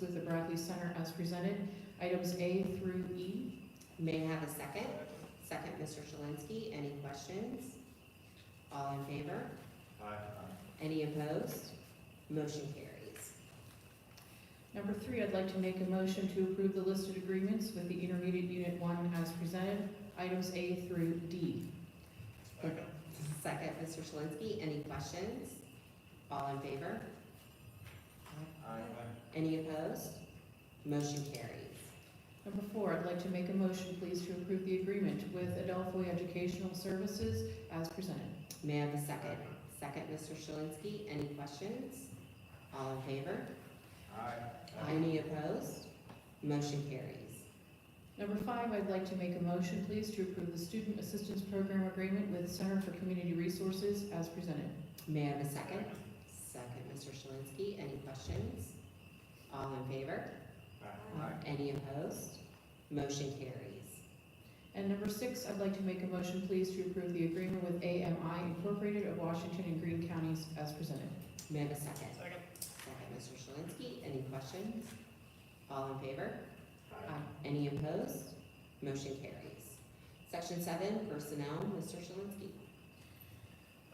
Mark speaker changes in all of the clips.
Speaker 1: with the Bradley Center as presented, items A through E.
Speaker 2: May I have a second? Second, Mr. Shalinski. Any questions? All in favor? Any opposed? Motion carries.
Speaker 1: Number three, I'd like to make a motion to approve the listed agreements with the intermediate unit one as presented, items A through D.
Speaker 2: Second, Mr. Shalinski. Any questions? All in favor? Any opposed? Motion carries.
Speaker 1: Number four, I'd like to make a motion, please, to approve the agreement with Adelphoi Educational Services as presented.
Speaker 2: May I have a second? Second, Mr. Shalinski. Any questions? All in favor? Any opposed? Motion carries.
Speaker 1: Number five, I'd like to make a motion, please, to approve the Student Assistance Program Agreement with Center for Community Resources as presented.
Speaker 2: May I have a second? Second, Mr. Shalinski. Any questions? All in favor? Any opposed? Motion carries.
Speaker 1: And number six, I'd like to make a motion, please, to approve the agreement with AMI Incorporated of Washington and Greene Counties as presented.
Speaker 2: May I have a second? Second, Mr. Shalinski, any questions? All in favor? Any opposed? Motion carries. Section seven, personnel, Mr. Shalinski.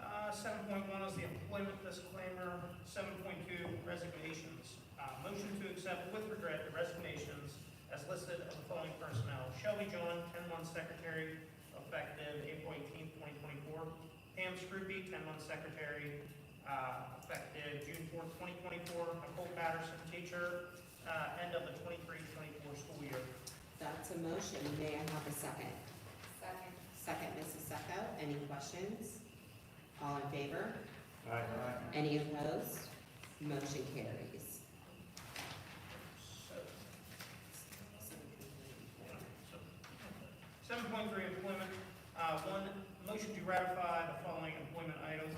Speaker 3: Uh, Seven point one is the employment disclaimer. Seven point two, resignations. Uh, Motion to accept with regret the resignations as listed of the following personnel. Shelby John, 10-1 secretary, effective April eighteenth, twenty twenty-four. Pam Scrupy, 10-1 secretary, uh, effective June fourth, twenty twenty-four. Nicole Patterson, teacher, uh, end of the 23-24 school year.
Speaker 2: That's a motion, may I have a second? Second. Second, Mrs. Sacco, any questions? All in favor? Any opposed? Motion carries.
Speaker 3: So, Seven point three, employment, uh, one, motion to ratify the following employment items.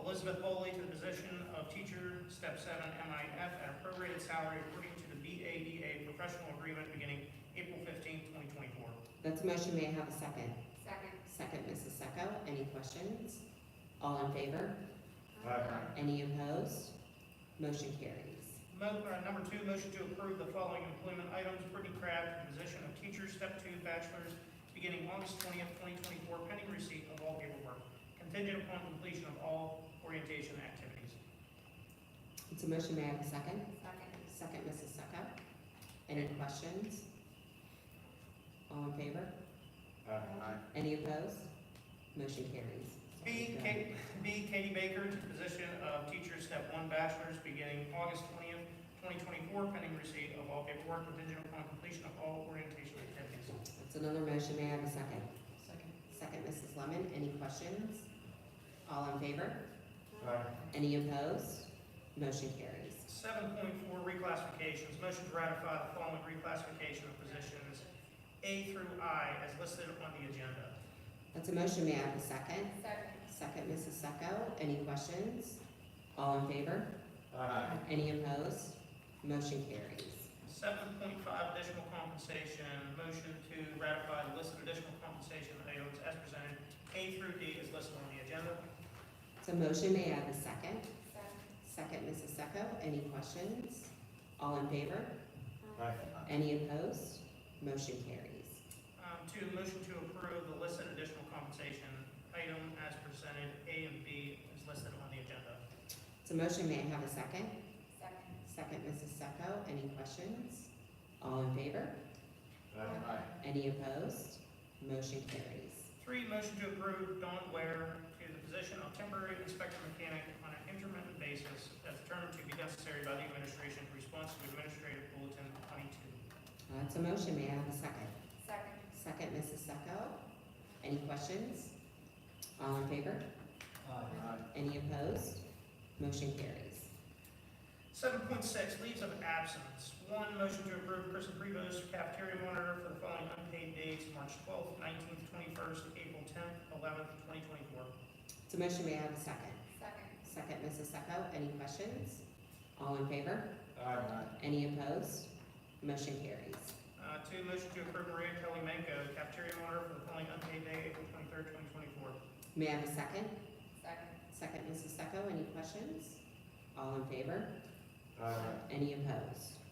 Speaker 3: Elizabeth Bowley to the position of teacher, step seven, MIF, at a prorated salary according to the BADA professional agreement beginning April fifteenth, twenty twenty-four.
Speaker 2: That's a motion, may I have a second? Second. Second, Mrs. Sacco, any questions? All in favor? Any opposed? Motion carries.
Speaker 3: Mo, uh, number two, motion to approve the following employment items. Brittany Craft, position of teacher, step two, bachelor's, beginning August twentieth, twenty twenty-four, pending receipt of all paperwork, contingent upon completion of all orientation activities.
Speaker 2: It's a motion, may I have a second? Second. Second, Mrs. Sucko. Any questions? All in favor? Any opposed? Motion carries.
Speaker 3: B, Kate, B, Katie Baker, to position of teacher, step one, bachelor's, beginning August twentieth, twenty twenty-four, pending receipt of all paperwork, contingent upon completion of all orientation activities.
Speaker 2: That's another motion, may I have a second?
Speaker 1: Second.
Speaker 2: Second, Mrs. Lemon, any questions? All in favor? Any opposed? Motion carries.
Speaker 3: Seven point four, reclassifications. Motion to ratify the following reclassification of positions A through I as listed on the agenda.
Speaker 2: That's a motion, may I have a second? Second, Mrs. Sucko, any questions? All in favor? Any opposed? Motion carries.
Speaker 3: Seven point five, additional compensation. Motion to ratify the list of additional compensation items as presented, A through D as listed on the agenda.
Speaker 2: So motion, may I have a second? Second, Mrs. Sucko, any questions? All in favor? Any opposed? Motion carries.
Speaker 3: Um, two, motion to approve the listed additional compensation item as presented, A and B as listed on the agenda.
Speaker 2: So motion, may I have a second? Second, Mrs. Sucko, any questions? All in favor? Any opposed? Motion carries.
Speaker 3: Three, motion to approve Dawn Ware to the position of temporary inspector mechanic on an intermittent basis as determined to be necessary by the administration in response to administrative bulletin twenty-two.
Speaker 2: That's Uh, a motion, may I have a second? Second, Mrs. Sucko, any questions? All in favor? Any opposed? Motion carries.
Speaker 3: Seven point six, leaves of absence. One, motion to approve Chris Prevost cafeteria monitor for the following unpaid dates, March twelfth, nineteenth, twenty-first, April tenth, eleventh, twenty twenty-four.
Speaker 2: So motion, may I have a second? Second, Mrs. Sucko, any questions? All in favor? Any opposed? Motion carries.
Speaker 3: Uh, two, motion to approve Maria Kelly Manco cafeteria monitor for the following unpaid day, April twenty-third, twenty twenty-four.
Speaker 2: May I have a second? Second, Mrs. Sucko, any questions? All in favor? Any opposed?